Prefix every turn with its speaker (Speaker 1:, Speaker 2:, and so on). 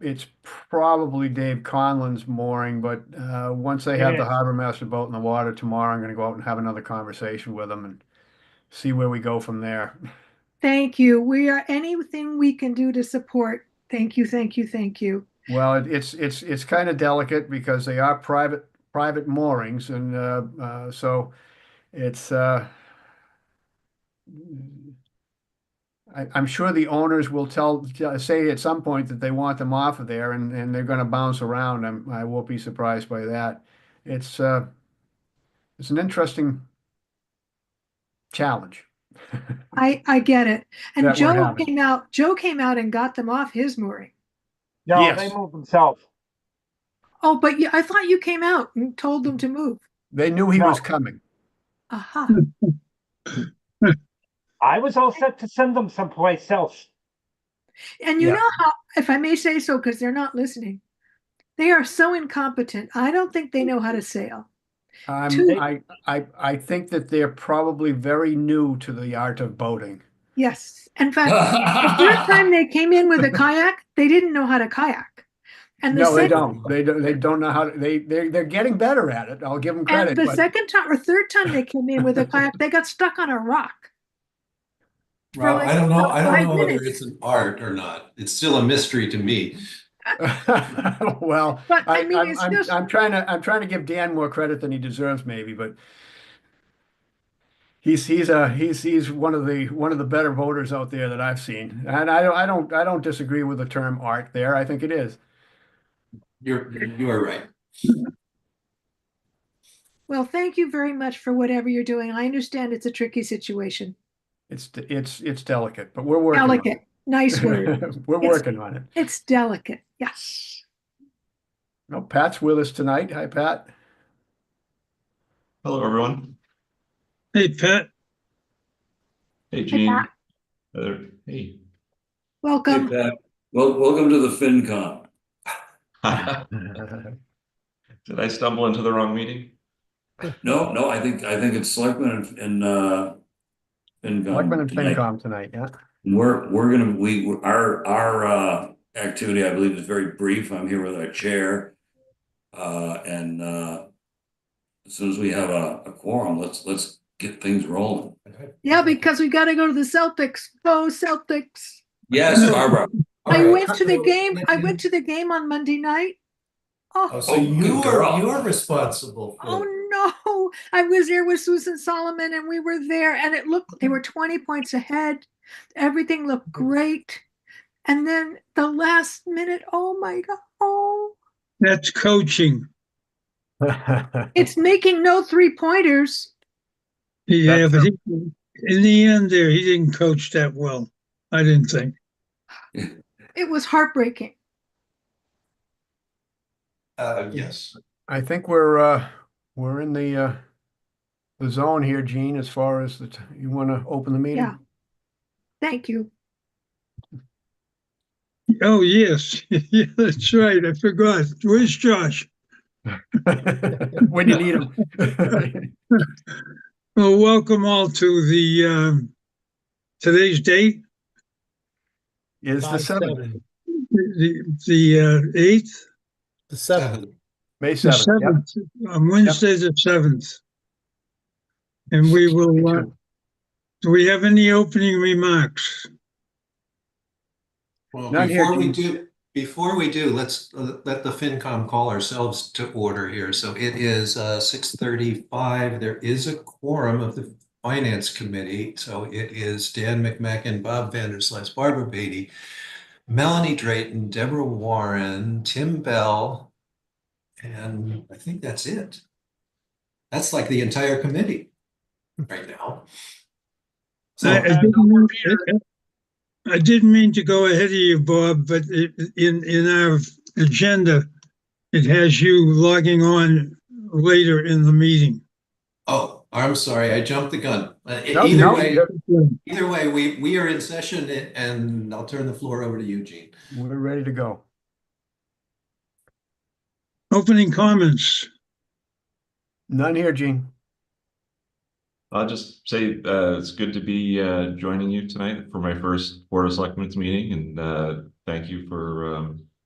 Speaker 1: it's probably Dave Conlon's mooring, but, uh, once they have the
Speaker 2: is.
Speaker 1: harbor master boat in the water tomorrow, I'm gonna go out and have another conversation with him and see where we go from there.
Speaker 3: Thank you. We are, anything we can do to support. Thank you, thank you, thank you.
Speaker 1: Well, it- it's, it's, it's kind of delicate because they are private, private moorings and, uh, uh, so it's, uh, I, I'm sure the owners will tell, say at some point that they want them off of there and, and they're gonna bounce around. I'm, I won't be surprised by that. It's, uh, it's an interesting challenge.
Speaker 3: I, I get it. And
Speaker 1: That we're
Speaker 3: Joe
Speaker 1: having.
Speaker 3: came out, Joe came out and got them off his mooring.
Speaker 2: No,
Speaker 1: Yes.
Speaker 2: they move themselves.
Speaker 3: Oh, but you, I thought you came out and told them to move.
Speaker 1: They knew he was
Speaker 2: No.
Speaker 1: coming.
Speaker 3: Aha.
Speaker 2: I was all set to send them someplace else.
Speaker 3: And you
Speaker 1: Yeah.
Speaker 3: know how, if I may say so, because they're not listening, they are so incompetent. I don't think they know how to sail. Two-
Speaker 1: Um, I, I, I think that they're probably very new to the art of boating.
Speaker 3: Yes. In fact, the first time they came in with a kayak, they didn't know how to kayak. And the
Speaker 1: No, they
Speaker 3: second,
Speaker 1: don't. They don't, they don't know how, to- they, they're, they're getting better at it. I'll give them credit,
Speaker 3: and the
Speaker 1: but
Speaker 3: second time or third time they came in with a kayak, they got stuck on a rock. for
Speaker 4: Well,
Speaker 3: like "Oh,
Speaker 4: I don't know, I
Speaker 3: five
Speaker 4: don't know whether
Speaker 3: minutes.
Speaker 4: it's an art or not. It's still a mystery to me.
Speaker 1: well,
Speaker 3: But
Speaker 1: I,
Speaker 3: I mean,
Speaker 1: I'm,
Speaker 3: it's
Speaker 1: I'm,
Speaker 3: just,
Speaker 1: I'm trying to, I'm trying to give Dan more credit than he deserves maybe, but he's, he's a, he's, he's one of the, one of the better voters out there that I've seen. And I don't, I don't, I don't disagree with the term art there. I think it is.
Speaker 4: You're, you are right.
Speaker 3: well, thank you very much for whatever you're doing. I understand it's a tricky situation.
Speaker 1: It's, it's, it's delicate, but we're working. on it.
Speaker 3: Delicate, nice word.
Speaker 1: We're
Speaker 3: Yes.
Speaker 1: working on it.
Speaker 3: It's delicate, yes.
Speaker 1: No, Pat's with us tonight. Hi, Pat.
Speaker 5: Hello, everyone.
Speaker 6: Hey, Pat.
Speaker 5: Hey, Gene.
Speaker 3: Pat.
Speaker 5: Heather. Hey.
Speaker 3: Welcome.
Speaker 7: Well, welcome to the FinCom.
Speaker 5: Did I stumble into the wrong meeting?
Speaker 7: No, no, I think, I think it's Selectmen and, and, uh, FinCom.
Speaker 1: Selectmen and
Speaker 7: tonight.
Speaker 1: FinCom tonight, yeah.
Speaker 7: We're, we're gonna, we, we're- our, our, uh, activity, I believe, is very brief. I'm here with our chair. Uh, and, uh, as soon as we have a, a quorum, let's, let's get things rolling.
Speaker 3: Yeah, because we gotta go to the Celtics. Go Celtics.
Speaker 7: Yes, Barbara.
Speaker 3: I went to the game, I went to the game on Monday night.
Speaker 8: Oh,
Speaker 3: Oh,
Speaker 8: so
Speaker 7: Oh,
Speaker 8: you
Speaker 7: good
Speaker 8: are,
Speaker 7: girl.
Speaker 8: you are responsible for it.
Speaker 3: oh no, I was there with Susan Solomon and we were there and it looked, they were twenty points ahead. Everything looked
Speaker 1: Mm-hmm.
Speaker 3: great. And then the last minute, oh my God, oh,
Speaker 1: Uh-huh.
Speaker 6: That's coaching.
Speaker 3: it's making no three pointers.
Speaker 6: Yeah,
Speaker 1: That's
Speaker 6: but he, in the end there, he didn't coach that well, I didn't think.
Speaker 3: It was heartbreaking.
Speaker 8: Uh, yes.
Speaker 1: I think we're, uh, we're in the, uh, the zone here, Gene, as far as the, t- you want to open the meeting?
Speaker 3: Yeah. Thank you.
Speaker 6: Oh, yes, yeah, that's right, I forgot. Where's Josh?
Speaker 1: When you need them.
Speaker 6: Well, welcome all to the, um, today's date,
Speaker 1: Is the
Speaker 8: Five,
Speaker 1: seventh,
Speaker 8: seven.
Speaker 6: the, the uh, eighth?
Speaker 8: The seventh.
Speaker 1: May
Speaker 6: The
Speaker 1: seventh, yeah.
Speaker 6: seventh, on Wednesday, the seventh. And we will, uh, do we have any opening remarks?
Speaker 4: Well,
Speaker 1: Not here,
Speaker 4: before we
Speaker 1: James.
Speaker 4: do, before we do, let's uh, let the FinCom call ourselves to order here. So it is uh six thirty-five. There is a quorum of the Finance Committee. So it is Dan McMackin, Bob Vanderslice, Barbara Beatty, Melanie Drayton, Deborah Warren, Tim Bell, and I think that's it. That's like the entire committee right now. So
Speaker 6: I- I
Speaker 2: uh,
Speaker 6: didn't
Speaker 2: no,
Speaker 6: mean-
Speaker 2: Peter.
Speaker 6: I- I didn't mean to go ahead of you, Bob, but i- in, in our agenda, it has you logging on later in the meeting.
Speaker 4: Oh, I'm sorry, I jumped the gun. Uh, e-
Speaker 1: No,
Speaker 4: Either
Speaker 1: no,
Speaker 4: way,
Speaker 1: you're-
Speaker 4: either way, we, we are in session a- and I'll turn the floor over to Eugene.
Speaker 1: We're ready to go.
Speaker 6: Opening comments.
Speaker 1: None here, Gene.
Speaker 5: I'll just say, uh, it's good to be, uh, joining you tonight for my first Board of Selectmen's meeting and, uh, thank you for, um,